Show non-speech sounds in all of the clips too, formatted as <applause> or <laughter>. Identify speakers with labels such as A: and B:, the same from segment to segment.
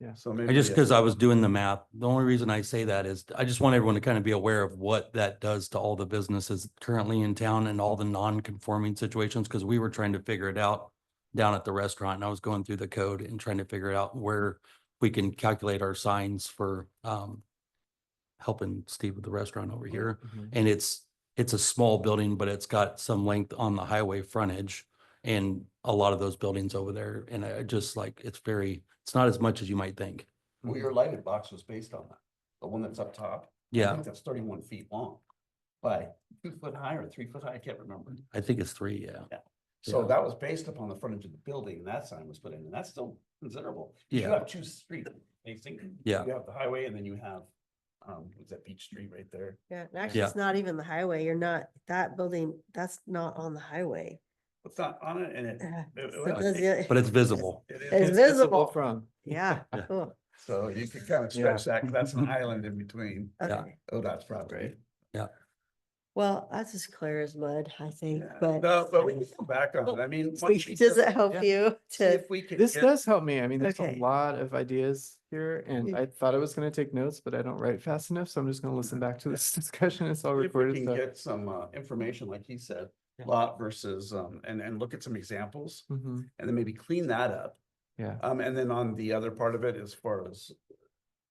A: Yeah.
B: So maybe.
C: I just,
B: yeah.
C: because I was doing the math, the only reason I say that is I just want everyone to kind of be aware of what that does to all the businesses currently in town and all the non-conforming situations, because we were trying to figure it out down at the restaurant and I was going through the code and trying to figure out where we can calculate our signs for um helping Steve with the restaurant over here.
A: Mhm.
C: And it's, it's a small building, but it's got some length on the highway frontage and a lot of those buildings over there. And I just like, it's very, it's not as much as you might think.
B: Well, your lighted box was based on that, the one that's up top. I
C: Mm-hmm. Yeah,
B: think that's thirty-one feet long by two foot high or three foot high, I can't remember.
C: I think it's three, yeah.
B: So
C: Mm-hmm. Yeah.
B: that was based upon the frontage of the building and that sign was put in, and that's still considerable. You
C: Yeah.
B: have two streets facing.
C: Yeah.
B: You have the highway and then you have, um, what's that Beach Street right there?
D: Yeah, and actually,
C: Yeah.
D: it's not even the highway. You're not, that building, that's not on the highway. <laughs>
B: It's not on it and it.
D: Uh,
B: it-
D: so
B: well,
D: does
B: it-
D: it- <laughs>
C: But it's visible.
B: it is-
D: It's visible.
A: From, <laughs>
D: Yeah,
C: Yeah.
D: cool.
B: So you could kind of stretch that, 'cause that's
C: Mm-hmm.
B: an island in between
C: Yeah.
D: Okay.
B: ODOT's property.
D: Well, that's as clear as mud, I think,
B: Yeah.
D: but.
B: No,
D: <laughs>
B: but we can come back on it. I mean.
D: So
B: once we
D: Does
B: get-
D: it help
A: yeah.
D: you
B: see
D: to?
B: if we can
A: this
B: get-
A: does help me. I mean, there's a
D: Okay.
A: lot of ideas here and
D: Yeah.
A: I thought I was gonna take notes, but I don't write fast enough. So I'm just gonna listen back to this <laughs> discussion. It's all
B: If we
A: recorded.
B: can
A: so-
B: get some uh information, like he said,
C: Yeah.
B: lot versus um, and and look at some examples
A: Mhm,
B: and then maybe clean that up.
A: Yeah.
B: Um, and then on the other part of it, as far as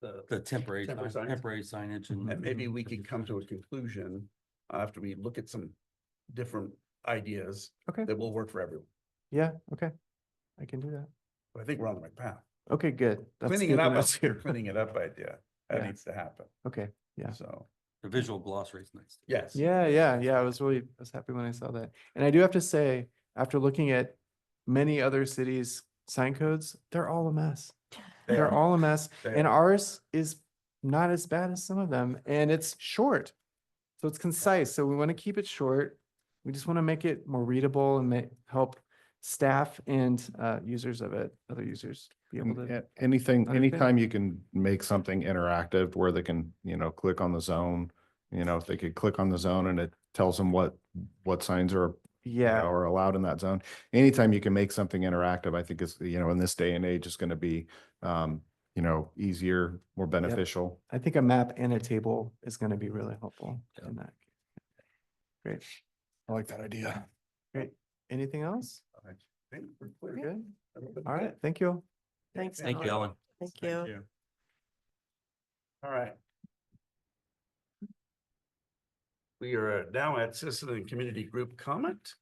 C: The
B: the,
C: temporary,
B: Temporary
C: sign-
B: signs.
C: temporary signage and.
B: and
A: Mm-hmm.
B: maybe we could come to a conclusion after we look at some different ideas
A: Okay.
B: that will work for everyone.
A: Yeah, okay. I can do that.
B: But I think we're on the right path.
A: Okay, good. That's
B: Cleaning
A: good
B: it
A: to
B: up,
A: know.
B: I see your cleaning it up idea. That
A: Yeah.
B: needs to happen.
A: Okay, yeah.
B: So,
C: The visual glossary is nice.
B: yes.
A: Yeah, yeah, yeah. I was really, I was happy when I saw that. And I do have to say, after looking at many other cities' sign codes, they're all a mess.
B: They
A: They're
B: are.
A: all a mess.
B: They
A: And
B: are.
A: ours is not as bad as some of them and it's short. So it's concise. So we want to keep it short. We just want to make it more readable and make, help staff and uh, users of it, other users be able
E: And
A: to.
E: a- Anything,
A: understand.
E: anytime you can make something interactive where they can, you know, click on the zone, you know, if they could click on the zone and it tells them what, what signs are, you know,
A: Yeah,
E: are allowed in that zone. Anytime you can make something interactive, I think is, you know, in this day and age is going to be, um, you know, easier, more beneficial.
A: I think a map and a table is going to be really helpful
C: Yeah.
A: in that. Great.
E: I like that idea.
A: Anything else?
B: I think we're
A: We're
B: clear.
A: good.
B: Everybody
A: All
B: good?
A: right, thank you.
B: Yeah,
D: Thanks,
C: Thank you, Alan.
D: Thank you.
B: All right. We are now at citizen and community group comment.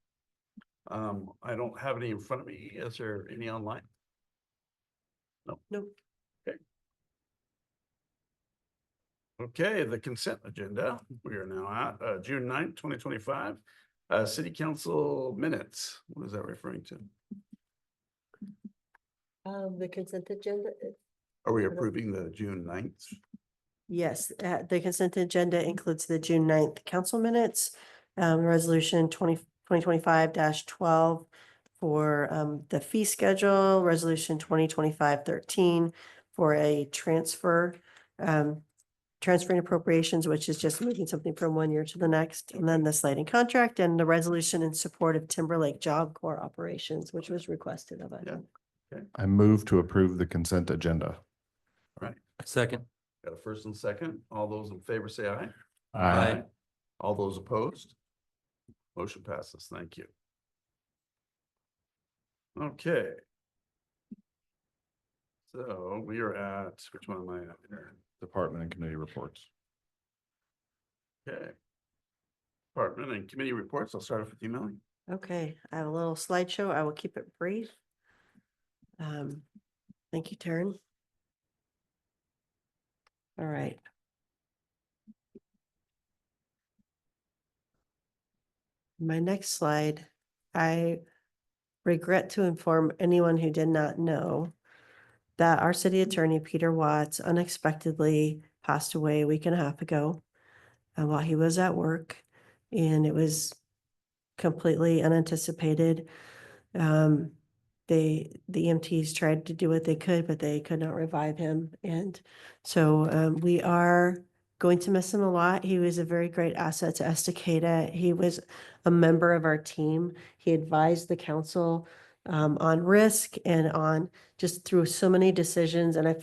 B: Um, I don't have any in front of me. Is there any online? No.
D: Nope.
B: Okay. Okay, the consent agenda. We are now at uh June 9th, twenty twenty-five. Uh, city council minutes. What is that referring to?
D: Um, the consent agenda, uh,
B: Are we approving the June 9th?
D: yes, uh, the consent agenda includes the June 9th council minutes. Um, resolution 20 2025 twelve for, um, the fee schedule, resolution 2025-13 for a transfer, um, transferring appropriations, which is just moving something from one year to the next, and then the sliding contract and the resolution in support of Timberlake Job Corps operations, which was requested of us.
B: Yeah.
E: I move to approve the consent agenda.
C: Second,
B: Got a first and second. All those in favor say aye.
C: Aye.
B: All those opposed? Motion passes. Thank you. Okay. So we are at, which one am I at here?
E: Department and committee reports.
B: Okay. Department and committee reports. I'll start off with you, Melanie.
D: Okay, I have a little slideshow. I will keep it brief. Um, thank you, Taryn. All right. My next slide, I regret to inform anyone who did not know that our city attorney, Peter Watts, unexpectedly passed away a week and a half ago uh, while he was at work. And it was completely unanticipated. Um, they, the EMTs tried to do what they could, but they could not revive him. And so, um, we are going to miss him a lot. He was a very great asset to Estacada. He was a member of our team. He advised the council, um, on risk and on just through so many decisions. And I felt